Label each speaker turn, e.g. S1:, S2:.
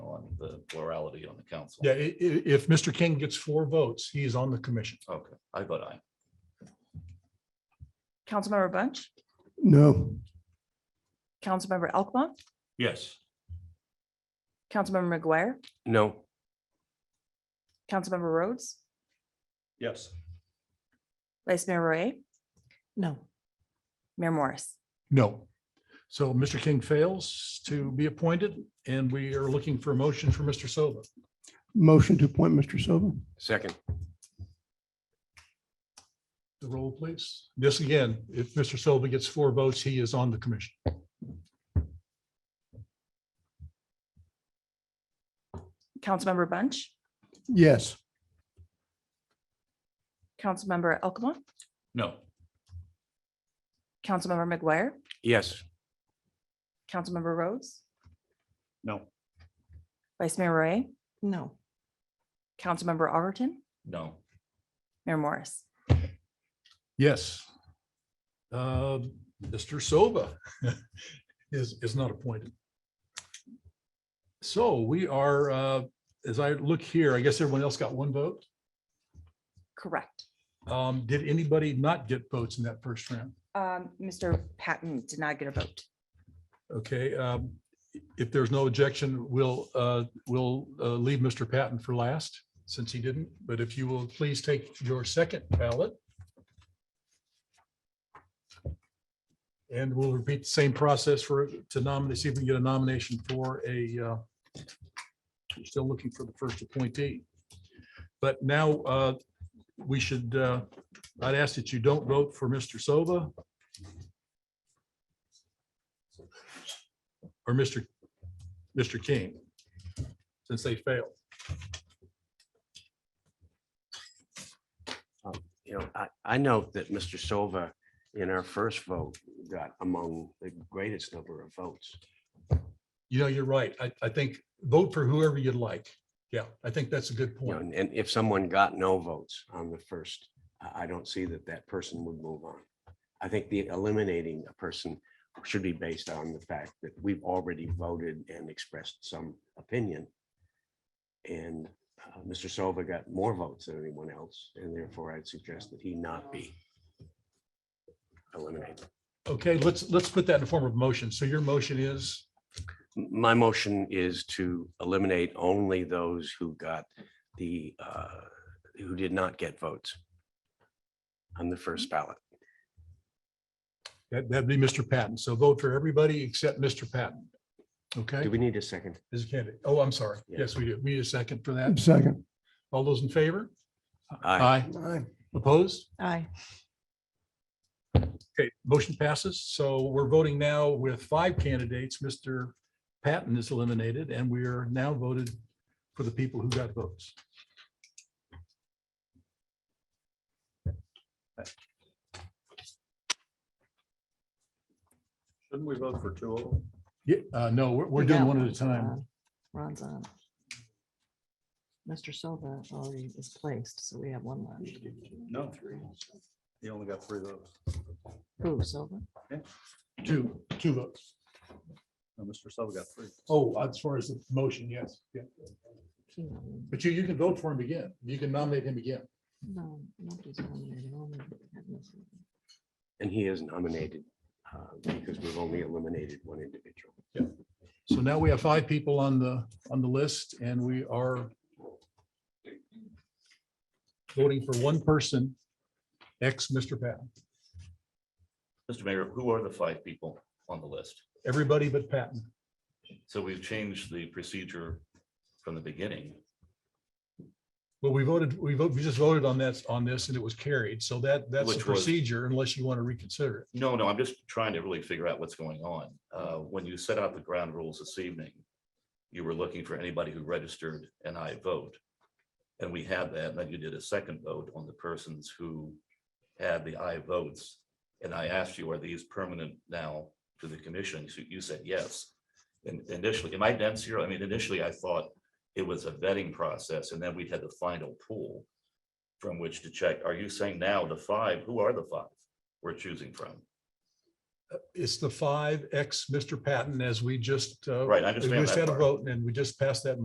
S1: plurality on the council.
S2: Yeah, i- i- if Mr. King gets four votes, he is on the commission.
S1: Okay, I vote aye.
S3: Councilmember Bunch,
S4: No.
S3: Councilmember Elkmont,
S5: Yes.
S3: Councilmember McGuire,
S5: No.
S3: Councilmember Rhodes,
S5: Yes.
S3: Vice Mayor Roy,
S6: no,
S3: Mayor Morris.
S2: No. So Mr. King fails to be appointed and we are looking for a motion for Mr. Silva.
S4: Motion to appoint Mr. Silva?
S5: Second.
S2: The roll, please. This again, if Mr. Silva gets four votes, he is on the commission.
S3: Councilmember Bunch,
S4: Yes.
S3: Councilmember Elkmont,
S1: No,
S3: Councilmember McGuire,
S5: Yes.
S3: Councilmember Rhodes,
S5: No.
S3: Vice Mayor Roy,
S6: no,
S3: Councilmember Overton,
S1: no,
S3: Mayor Morris.
S2: Yes. Uh, Mr. Silva is, is not appointed. So we are, uh, as I look here, I guess everyone else got one vote.
S3: Correct.
S2: Um, Did anybody not get votes in that first round?
S3: Um, Mr. Patton did not get a vote.
S2: Okay, um, if there's no objection, we'll, uh, we'll uh, leave Mr. Patton for last, since he didn't. But if you will please take your second ballot. And we'll repeat the same process for, to nominate, see if we can get a nomination for a, uh, we're still looking for the first appointee. But now uh, we should, uh, I'd ask that you don't vote for Mr. Silva or Mr. Mr. King, since they failed.
S7: you know, I, I know that Mr. Silva in our first vote got among the greatest number of votes.
S2: You know, you're right. I, I think vote for whoever you'd like. Yeah, I think that's a good
S7: you know,
S2: point.
S7: And and if someone got no votes on the first, I, I don't see that that person would move on. I think the eliminating a person should be based on the fact that we've already voted and expressed some opinion. And uh, Mr. Silva got more votes than anyone else, and therefore I'd suggest that he not be eliminated.
S2: Okay, let's, let's put that in the form of motion. So your motion is,
S7: My motion is to eliminate only those who got the, uh, who did not get votes on the first ballot.
S2: that- that'd be Mr. Patton. So vote for everybody except Mr. Patton. Okay,
S7: Do we need a second?
S2: as a candidate. Oh, I'm sorry.
S7: Yeah.
S2: Yes, we do. We need a second for that.
S4: Second.
S2: All those in favor? Uh,
S7: Aye.
S4: Aye.
S2: Opposed?
S6: aye,
S2: Okay, motion passes. So we're voting now with five candidates. Mr. Patton is eliminated and we are now voted for the people who got votes.
S5: Shouldn't we vote for two of them?
S2: Yeah, uh, no, we're, we're
S6: We
S2: doing
S6: got
S2: one at a
S6: Ron's
S2: time.
S6: on. Ron's on. Mr. Silva already is placed, so we have one left.
S5: No. You only got three votes.
S6: Who, Silva?
S2: Two, two votes.
S5: No, Mr. Silva got three.
S2: Oh, as far as the motion, yes, yeah.
S6: He nominated.
S2: But you, you can vote for him again. You can nominate him again.
S6: No, nobody's nominated. only Patton is nominated.
S7: And he is nominated uh, because we've only eliminated one individual.
S2: So now we have five people on the, on the list and we are voting for one person, ex Mr. Patton,
S1: Mr. Mayor, who are the five people on the list?
S2: everybody but Patton.
S1: So we've changed the procedure from the beginning.
S2: Well, we voted, we voted, we just voted on that, on this and it was carried. So that, that's the
S1: Which was-
S2: procedure unless you want to reconsider it.
S1: No, no, I'm just trying to really figure out what's going on. Uh, When you set out the ground rules this evening, you were looking for anybody who registered an I vote. And we had that, and then you did a second vote on the persons who had the I votes. And I asked you, are these permanent now to the commission? So You said yes. And initially, am I dense here? I mean, initially, I thought it was a vetting process, and then we had the final pool from which to check. Are you saying now the five, who are the five we're choosing from?
S2: It's the five ex Mr. Patton as we just. uh,
S1: Right, I
S2: We
S1: understand
S2: just
S1: that
S2: had a
S1: part.
S2: vote and we just passed that